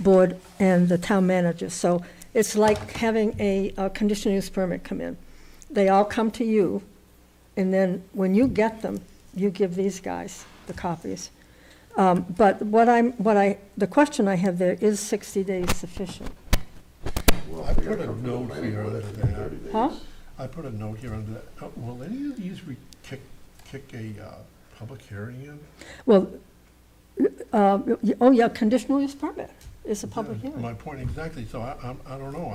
board and the town manager. So it's like having a, a conditional use permit come in. They all come to you, and then when you get them, you give these guys the copies. Um, But what I'm, what I, the question I have there, is 60 days sufficient? I put a note here under that, Huh? I put a note here under that, Uh, will any of these re, kick, kick a, uh, public hearing in? Well, uh, oh, yeah, conditional use permit is a public Yeah, hearing. My point exactly, so I, I'm, I don't know,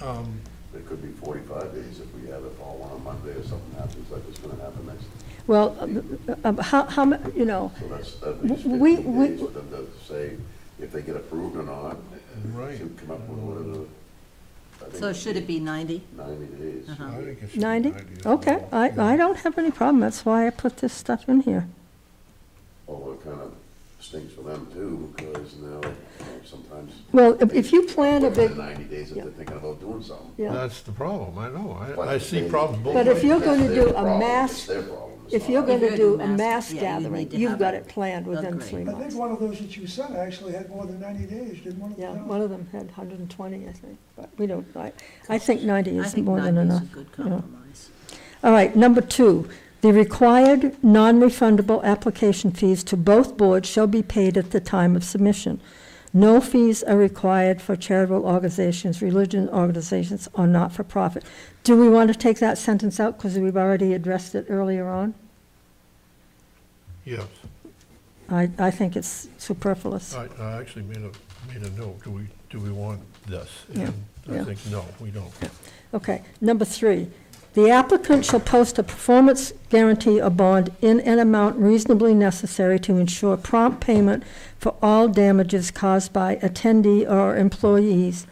I, um, It could be forty-five days if we have it all on a Monday or something happens like it's gonna happen next. Well, uh, uh, how, how, mu- you know, So that's, that leaves We- fifteen we- days for them to say if they get approved or not. Right. To come up with whatever. I think So should it be 90? Ninety days. Uh-huh. I think it should be 90? ninety. Um, Okay, I, I don't have any problem, that's why I put this stuff in here. Although it kind of stinks for them too, because now uh, sometimes. Well, if- if you plan a big, Within Ninety days if they're thinking about doing something. yeah, That's the problem, I know, But I, I if see they- problems both But if ways. you're That's gonna their do a problem. mass- It's their problem. It's if not you're ours. gonna do a Mass- mass yeah, you need gathering, to you've have got it it planned within agreed. three I I think months. one of those that you sent actually had more than 90 days, didn't one of Yeah, them? one of them had hundred and twenty, I think, but we don't, I, I think ninety I is think more than 90 is enough. a good you know. compromise. All right, number two, the required non-refundable application fees to both boards shall be paid at the time of submission. No fees are required for charitable organizations, religion organizations, or not-for-profit. Do we want to take that sentence out because we've already addressed it earlier on? Yes, I, I think it's superfluous. I, I actually made a, made a note, do we, do we want this? Yeah, And I yeah. think, no, we don't. Okay, number three, the applicant shall post a performance guarantee or bond in an amount reasonably necessary to ensure prompt payment for all damages caused by attendee or employees,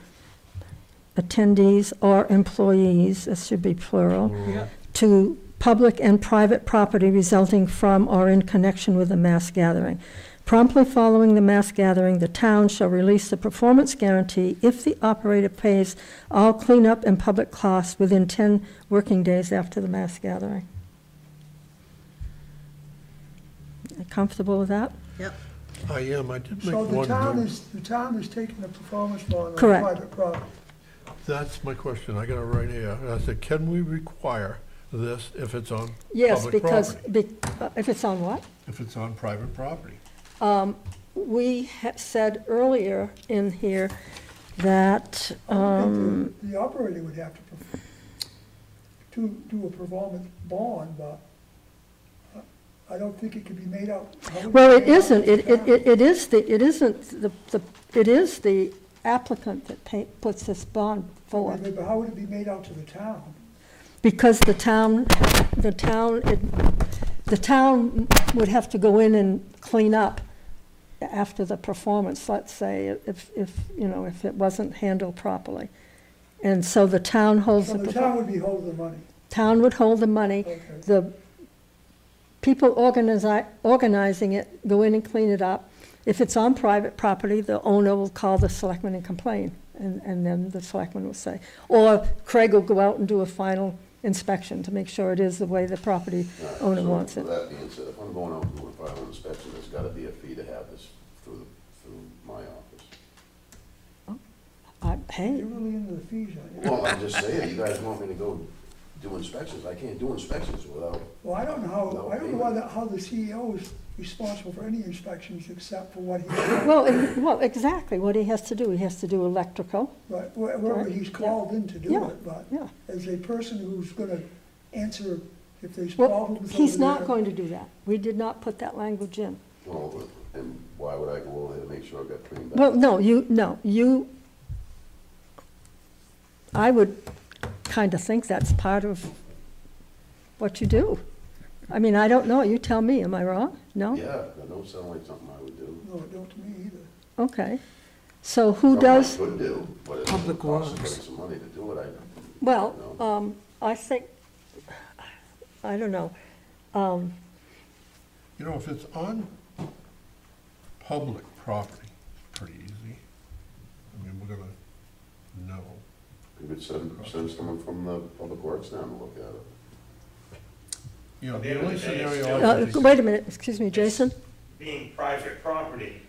attendees or employees, this should be plural, We're- to public and private property resulting from or in connection with a mass gathering. Promptly following the mass gathering, the town shall release the performance guarantee if the operator pays all cleanup and public costs within 10 working days after the mass gathering. Comfortable with that? Yep. I am, I did make So one the town note. is, the town is taking a performance bond on Correct. private property. That's my question, I got it right here. I said, can we require this if it's on Yes, public because, property? be- uh, if it's on what? If it's on private property. We ha- said earlier in here that, I um, think The the operator would have to, perf- to do a performance bond, but I- I don't think it could be made out. how would Well, it be made out to isn't, the it, it, town? it- it is the, it isn't the, the, it is the applicant that pay, puts this bond Wait, forward, wait, But how would it be made out to the town? because the town, the town, it- the town would have to go in and clean up after the performance, let's say, if, if, you know, if it wasn't handled properly. And so the town holds So the. the perfor- town would be holding the money. town would hold the money. Okay. The people organizi- organizing it go in and clean it up. If it's on private property, the owner will call the selectman and complain, and, and then the selectman will say. Or Craig will go out and do a final inspection to make sure it is the way the property All right, owner so wants it. With that being said, if I'm going out and doing a fire inspection, there's gotta be a fee to have this through, the- through my office. I- Uh, Hey, You're really into the fees, aren't you? Well, I'm just saying, you guys want me to go do inspections, I can't do inspections without, Well, I don't know how, No, I don't know anyway. why the- how the CEO is responsible for any inspections except for what he, well, and- well, exactly what he has to do, he has to do electrical, but wh- wherever he's called in to do Yeah, it, but yeah. as a person who's gonna answer if there's Well, problems over there. he's not going to do that. We did not put that language in. well, and why would I go over there to make sure I've got cleaned up? Well, no, you, no, you, I would kind of think that's part of what you do. I mean, I don't know, you tell me, am I wrong? No? Yeah, that don't sound like something I would do. No, it don't to me either. Okay. So who Something I does, Could do, but it's gonna Public cost Works. me some money to do it, I. well, no. um, I think, I don't know. Um, You know, if it's on public property, it's pretty easy. I mean, we're gonna know. You could send, send someone from the Public Works down to look at it. You know, At the the end of only the day, it's scenario. still- I uh, can see- Wait a minute, excuse me, Jason? being private property,